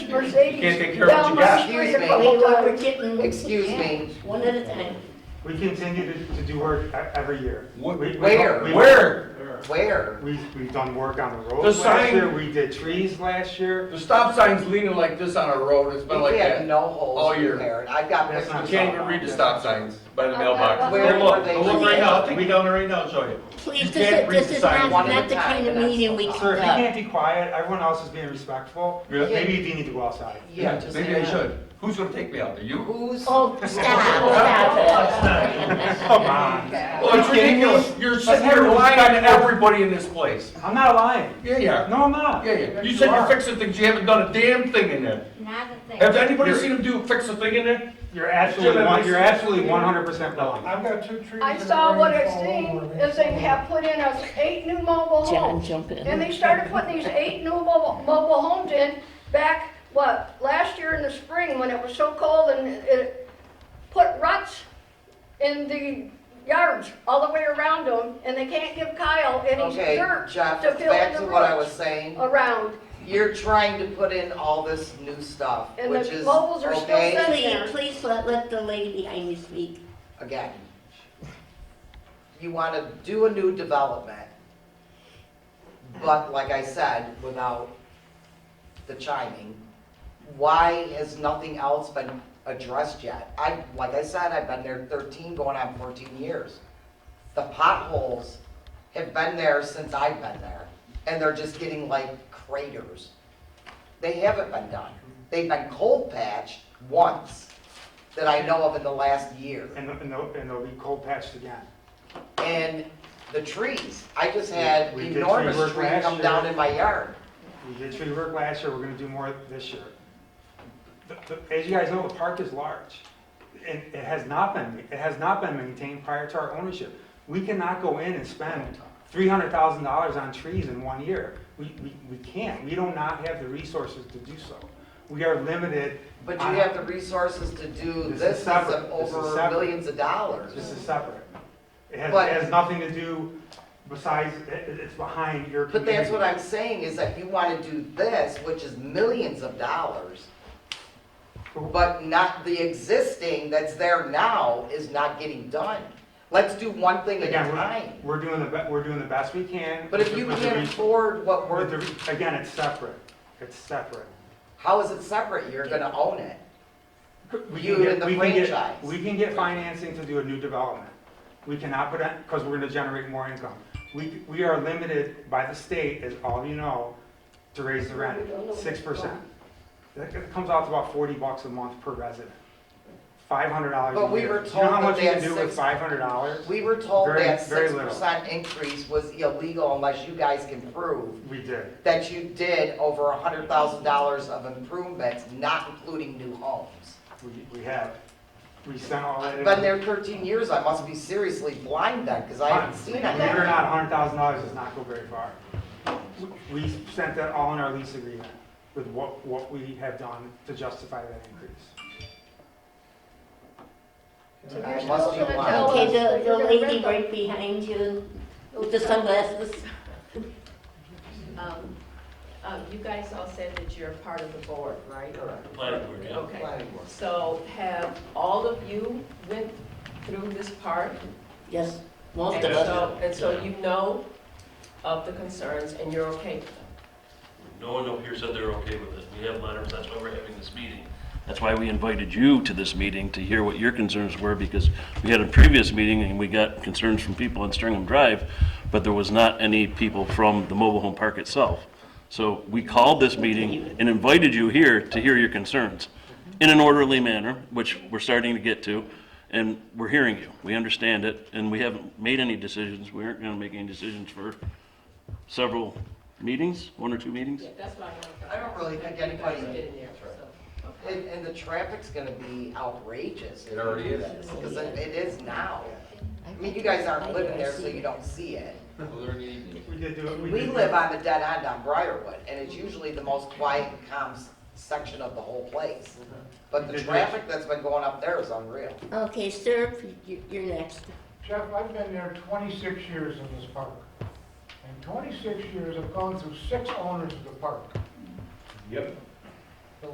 Mercedes. Can't take care of what you got. Excuse me. Excuse me. Kitten. Excuse me. One at a time. We continue to, to do work e- every year. Wh- We- we- Where? we- Where? Where? We, we've done work on the The roads last sign- year, we did trees last year. The stop sign's leaning like this on a road, it's been like We have that. no holes all in year. there. I've got That's pictures. not- You can't even read the stop signs by the mailbox. Where Go look, were they go look right leaning? now, I'll take you down there right now and show you. Please, You this can't is, read this the is sign. not, One at not a the time, kind of and that's meeting we all. Sir, if you conduct. can't be quiet, everyone else is being respectful, Yeah. maybe you do need to go outside. Yeah, just. Maybe I should. Who's gonna take me out there? You? Who's? Oh, stop, stop Come on. Well, it's ridiculous. You're sitting here lying on everybody in this place. I'm not lying. Yeah, yeah. No, I'm not. Yeah, yeah. You said are. you're fixing things, you haven't done a damn thing in there. Not a thing. Have anybody seen him do, fix a thing in there? You're absolutely, one- you're absolutely one hundred percent wrong. I've got two trees. I that saw are what I ready to fall seen over. is they have put in us eight new mobile it. John, homes. jump And in. they started putting these eight new mobile, mobile homes in back, what, last year in the spring when it was so cold and it put ruts in the yards all the way around them and they can't give Kyle any Okay, dirt Jeff, to fill back in to the what I was ruts saying. around. You're trying to put in all this new stuff, And which the is, moles are still okay, set. Please, please let, let the lady behind you speak. again. You want to do a new development, but like I said, without the chiming, why has nothing else been addressed yet? I, like I said, I've been there 13, going on 14 years. The potholes have been there since I've been there, and they're just getting like craters. They haven't been done. They've been cold patched once that I know of in the last year. And, and they'll, and they'll be cold patched again. And the trees, I just had We- we did tree enormous work tree last come year. down in my yard. We did tree work last year, we're gonna do more this year. The- the- As you guys know, the park is large, and it has not been, it has not been maintained prior to our ownership. We cannot go in and spend three hundred thousand dollars on trees in one year. We, we, we can't, we do not have the resources to do so. We are limited, But you have the resources to do This is this is separate. This is over separate. millions of dollars. this is separate. It has, But- it has nothing to do besides, it, it's behind your But that's community. what I'm saying, is that you want to do this, which is millions of dollars, but not, the existing that's there now is not getting done. Let's do one thing at a Again, time. we're, we're doing the, be- we're doing the best we can. But if you with the can't res- afford what But we're, the- Again, it's separate. It's separate. how is it separate? You're gonna own it. We You can get- and the we can get- franchise. We can get financing to do a new development. We cannot put in, because we're gonna generate more income. We, we are limited by the state, as all of you know, to raise the rent, six percent. That comes out to about forty bucks a month per resident. Five hundred dollars But a we year. were Do You know how told much that you can that's do with six- five hundred dollars? We were told Very- that very six little. percent increase was illegal unless you guys can prove We did. that you did over a hundred thousand dollars of improvements, not including new homes. We, we have. We sent all that. I've in. been there thirteen years, I must be seriously blind then, because I haven't seen Believe it or anything. not, hundred thousand dollars does not go very far. We- We sent that all in our lease agreement with what, what we have done to justify that increase. So I you're still must be gonna lying. tell Okay, us the, that the you're gonna lady rip them. right behind you with the sunglasses. Um, uh, You guys all said that you're part of the board, right? Correct. Planning board, yeah. Okay. Planning board. So have all of you went through this part? Yes, most of And us. so- And so you know of the concerns and you're okay with them? No one up here said they're okay with it. We have letters, that's why we're having this meeting. That's why we invited you to this meeting, to hear what your concerns were, because we had a previous meeting and we got concerns from people on Stringham Drive, but there was not any people from the mobile home park itself. So we called this meeting and invited you here to hear your concerns in an orderly manner, which we're starting to get to, and we're hearing you. We understand it, and we haven't made any decisions. We aren't gonna make any decisions for several meetings, one or two meetings. Yeah, that's what I want to. I don't really think anybody- You guys get in there, so, okay. And, and the traffic's gonna be outrageous. It already is. Because it it is now. I mean, you guys aren't living there, so you don't see it. We did do it. We did do live it. on the dead end on Briarwood, and it's usually the most quiet and calm s- section of the whole place. But the traffic that's been going up there is unreal. Okay, sir, you- you're next. Jeff, I've been there twenty-six years in this park. And twenty-six years, I've gone through six owners of the park. Yep.